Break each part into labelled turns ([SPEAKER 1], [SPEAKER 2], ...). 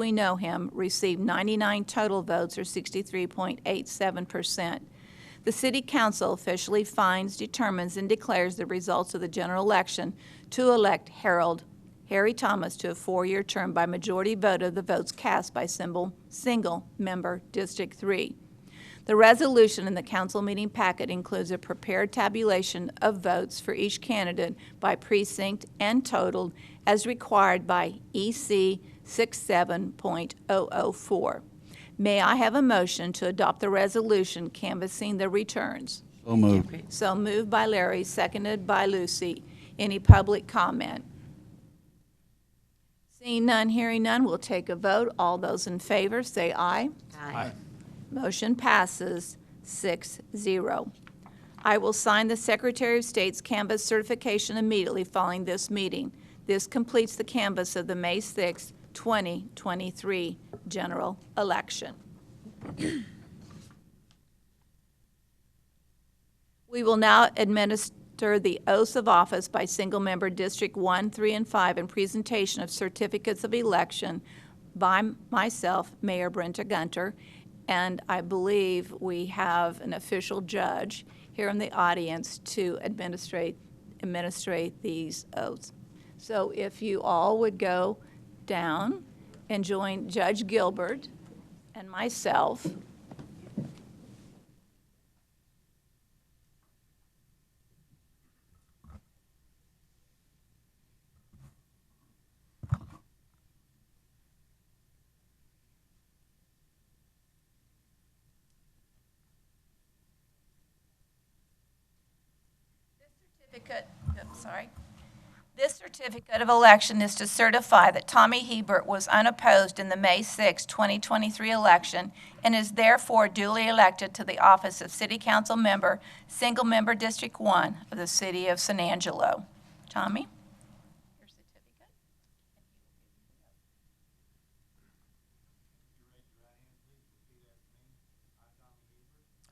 [SPEAKER 1] we know him, received 99 total votes, or 63.87%. The city council officially finds, determines, and declares the results of the general election to elect Harold Harry Thomas to a four-year term by majority vote of the votes cast by symbol, single member District 3. The resolution in the council meeting packet includes a prepared tabulation of votes for each candidate by precinct and totaled as required by E EC 67.004. May I have a motion to adopt the resolution canvassing the returns?
[SPEAKER 2] So moved.
[SPEAKER 1] So moved by Larry, seconded by Lucy. Any public comment? Seeing none, hearing none, we'll take a vote. All those in favor, say aye.
[SPEAKER 3] Aye.
[SPEAKER 1] Motion passes 6-0. I will sign the Secretary of State's canvas certification immediately following this meeting. This completes the canvas of the May 6, 2023 general election. We will now administer the oaths of office by single-member District 1, 3, and 5 and presentation of certificates of election by myself, Mayor Brenta Gunter, and I believe we have an official judge here in the audience to administrate, administrate these oaths. So if you all would go down and join Judge Gilbert and myself. certificate, oops, sorry. This certificate of election is to certify that Tommy Hebert was unopposed in the May 6, 2023 election and is therefore duly elected to the office of City Council Member, Single Member District 1 of the City of San Angelo. Tommy? Your certificate.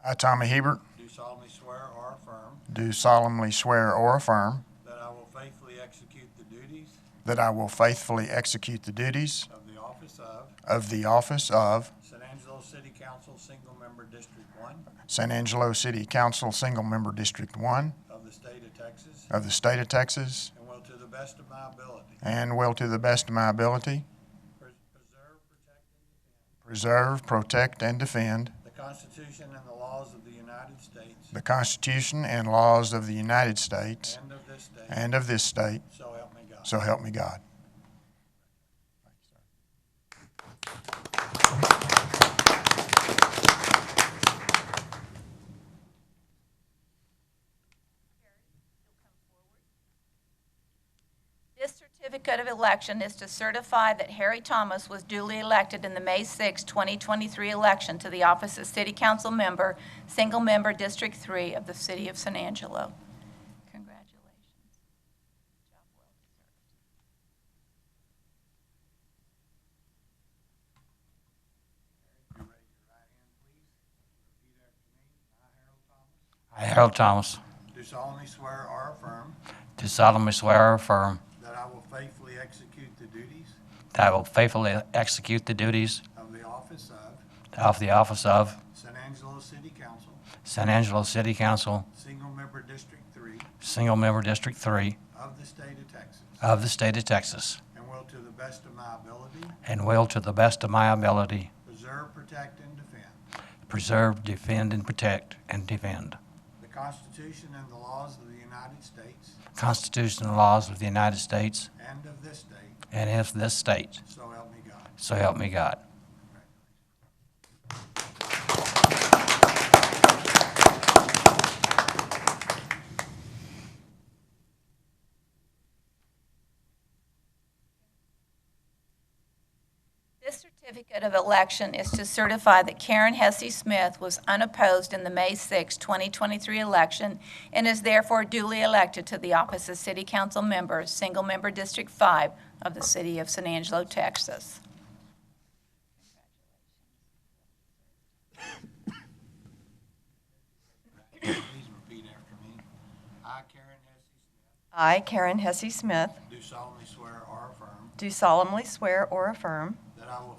[SPEAKER 4] I, Tommy Hebert,
[SPEAKER 5] Do solemnly swear or affirm
[SPEAKER 4] do solemnly swear or affirm
[SPEAKER 5] that I will faithfully execute the duties
[SPEAKER 4] that I will faithfully execute the duties
[SPEAKER 5] of the office of
[SPEAKER 4] of the office of
[SPEAKER 5] San Angelo City Council Single Member District One
[SPEAKER 4] San Angelo City Council Single Member District 1
[SPEAKER 5] of the state of Texas
[SPEAKER 4] of the state of Texas
[SPEAKER 5] and will to the best of my ability
[SPEAKER 4] and will to the best of my ability
[SPEAKER 5] pres- preserve, protect, and defend
[SPEAKER 4] preserve, protect, and defend
[SPEAKER 5] the Constitution and the laws of the United States
[SPEAKER 4] the Constitution and laws of the United States
[SPEAKER 5] and of this state,
[SPEAKER 4] and of this state.
[SPEAKER 5] so help me God.
[SPEAKER 4] So help me God.
[SPEAKER 1] This certificate of election is to certify that Harry Thomas was duly elected in the May 6, 2023 election to the office of City Council Member, Single Member District 3 of the City of San Angelo. Congratulations. Job well deserved.
[SPEAKER 5] You raise your right hand, please. Repeat after me. I, Harold Thomas,
[SPEAKER 6] I, Harold Thomas,
[SPEAKER 5] do solemnly swear or affirm
[SPEAKER 6] do solemnly swear or affirm
[SPEAKER 5] that I will faithfully execute the duties
[SPEAKER 6] that I will faithfully execute the duties
[SPEAKER 5] of the office of
[SPEAKER 6] of the office of
[SPEAKER 5] San Angelo City Council
[SPEAKER 6] San Angelo City Council,
[SPEAKER 5] Single Member District Three
[SPEAKER 6] Single Member District 3
[SPEAKER 5] Of the state of Texas.
[SPEAKER 6] of the state of Texas,
[SPEAKER 5] And will to the best of my ability
[SPEAKER 6] and will, to the best of my ability,
[SPEAKER 5] preserve, protect, and defend
[SPEAKER 6] preserve, defend, and protect, and defend
[SPEAKER 5] the Constitution and the laws of the United States
[SPEAKER 6] the Constitution and laws of the United States
[SPEAKER 5] and of this state,
[SPEAKER 6] and of this state.
[SPEAKER 5] so help me God.
[SPEAKER 6] So help me God.
[SPEAKER 1] This certificate of election is to certify that Karen Hesse Smith was unopposed in the May 6, 2023 election and is therefore duly elected to the office of City Council Member, Single Member District 5 of the City of San Angelo, Texas.
[SPEAKER 5] Please repeat after me. I, Karen Hesse Smith,
[SPEAKER 7] I, Karen Hesse Smith,
[SPEAKER 5] do solemnly swear or affirm
[SPEAKER 7] do solemnly swear or affirm
[SPEAKER 5] that I will